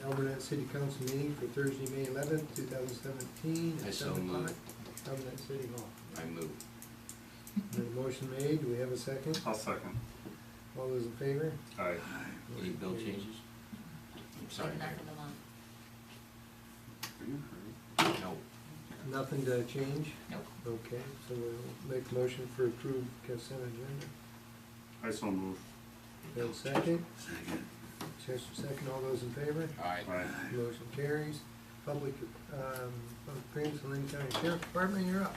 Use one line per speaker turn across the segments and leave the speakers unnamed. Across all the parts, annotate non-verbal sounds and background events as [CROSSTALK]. Providence City Council meeting for Thursday, May eleventh, two thousand seventeen,
I
at
so
seven o'clock,
moved.
Providence City Hall.
I move.
There's a motion made, do we have a second?
I'll second.
All those in favor?
Aye.
Any bill changes? I'm sorry,
Back
Mayor.
of the line.
No,
Nothing to change?
Nope.
Okay, so we'll make motion for approved consent agenda.
I so move.
We have a second? Chester, second, all those in favor?
aye.
Aye.
Motion carries. Public, um, public appearance in Lynn County Sheriff Department, you're up.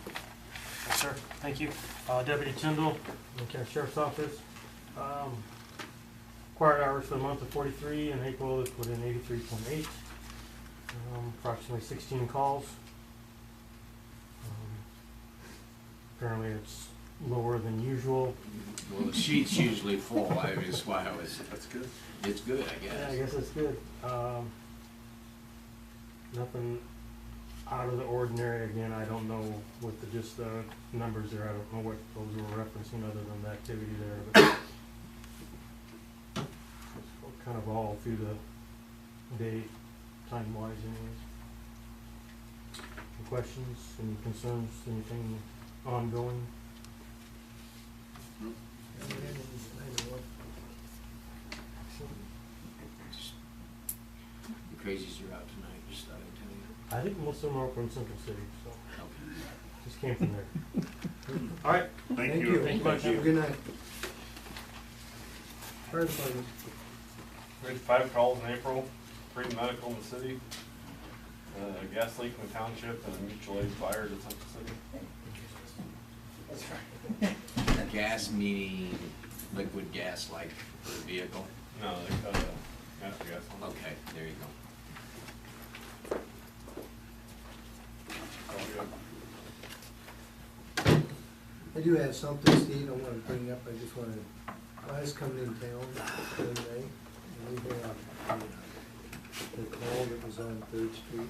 Yes, sir. Thank you. Uh, Deputy Tyndall, Lynn County Sheriff's Office. Um, Required hours for the month of forty-three, in April it put in eighty-three point eight. Um, Approximately sixteen calls. Um, Apparently it's lower than usual.
Well, the sheet's usually full, I mean, that's why I was,
That's good.
it's good, I
Yeah, I
guess.
guess that's good. Um, Nothing out of the ordinary. Again, I don't know what the, just the numbers there, I don't know what those were referencing other than the activity there, but it's kind of all through the day, time-wise anyways. Any questions, any concerns, anything ongoing?
Just- The crazies are out tonight, just thought I'd tell
I think most of them are from Central City, so
you.
just came from there. All right,
Thank you.
Thank you. much.
Have a good night. Fire department.
We had five calls in April, three medical in the city, uh, a gas leak in the township, and a mutual aid fire in Central City.
Okay. Gas meaning liquid gas like for the vehicle?
No, they cut a natural gas line.
Okay, there you go.
Oh,
All good.
I do have something, Steve, I wanna bring up, I just wanna, I was coming in town the other day, and we had, um, the call that was on Third Street.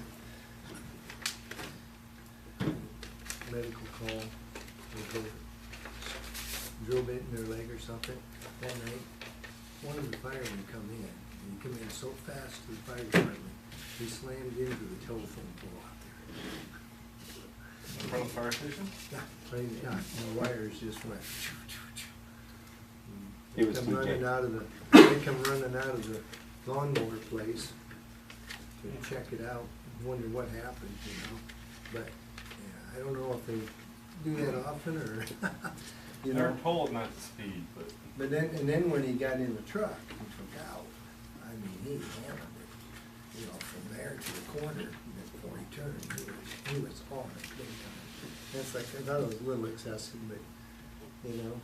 Medical call, they go drill bit in their leg or something, that night, one of the firemen come in, and he come in so fast to the fire department, he slammed into the telephone pole out there.
In front of the fire station?
Yeah, right, yeah, and the wires just went. choo, choo, choo.
It was
Come
too
running
deep.
out of the, they come running out of the lawnmower place to check it out, wonder what happened, you know? But, yeah, I don't know if they do that often or, [LAUGHS] you
They're
know?
told not to speed, but
But then, and then when he got in the truck and took out, I mean, he hammered it, you know, from there to the corner, and then before he turned, he was, he was on it big time. That's like, I thought it was a little excessive, but, you know,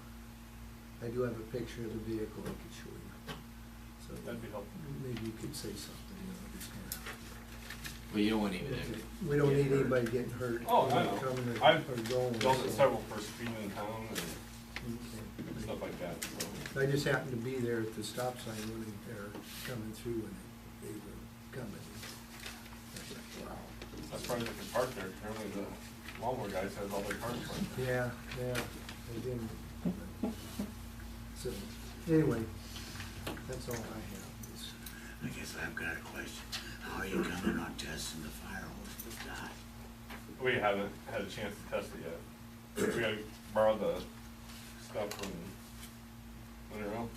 I do have a picture of the vehicle I could show you. So
that'd be helpful.
maybe you could say something, you know, just kinda.
Well, you don't want even that.
We don't need anybody getting hurt.
Oh, I know.
Coming or-
I've
or going.
Those are
so-
several for speeding in town and
Okay.
stuff like that, so.
I just happened to be there at the stop sign when they, they coming through when they, they were coming. I was like, Wow.
That's probably if you park there, apparently the lawnmower guys has all their cars parked. there.
Yeah, yeah, they didn't. but- So, anyway, that's all I have. is-
I guess I've got a question. How are you coming on testing the fire hose with that?
We haven't had a chance to test it yet. We gotta borrow the stuff from Monroe.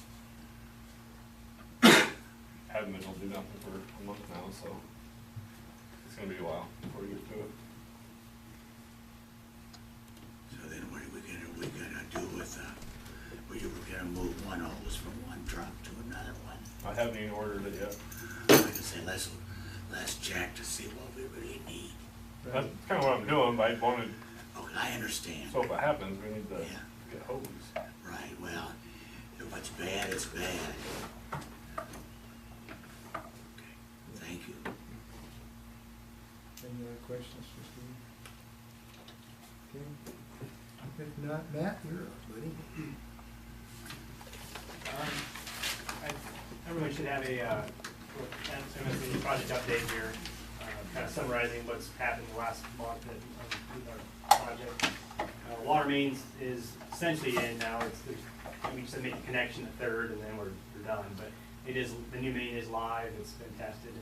Haven't been able to do nothing for a month now, so it's gonna be a while before we get to it.
So then what are we gonna, we gonna do with, uh, we were gonna move one hose from one truck to another one?
I haven't even ordered it yet.
Like I say, let's, let's check to see what we really need.
That's kinda what I'm doing, but I wanted,
Okay, I understand.
so if it happens, we need to
Yeah.
get hose.
Right, well, if it's bad, it's bad. Okay, Thank you.
Any other questions for Steve? Okay. If not, Matt, you're up, buddy.
Um, I I really should have a, uh, MSD project update here, uh, kind of summarizing what's happened the last month and, um, with our project. Uh, Water mains is essentially in now, it's, there's- we just make the connection the third and then we're, we're done, but it is, the new main is live, it's been tested,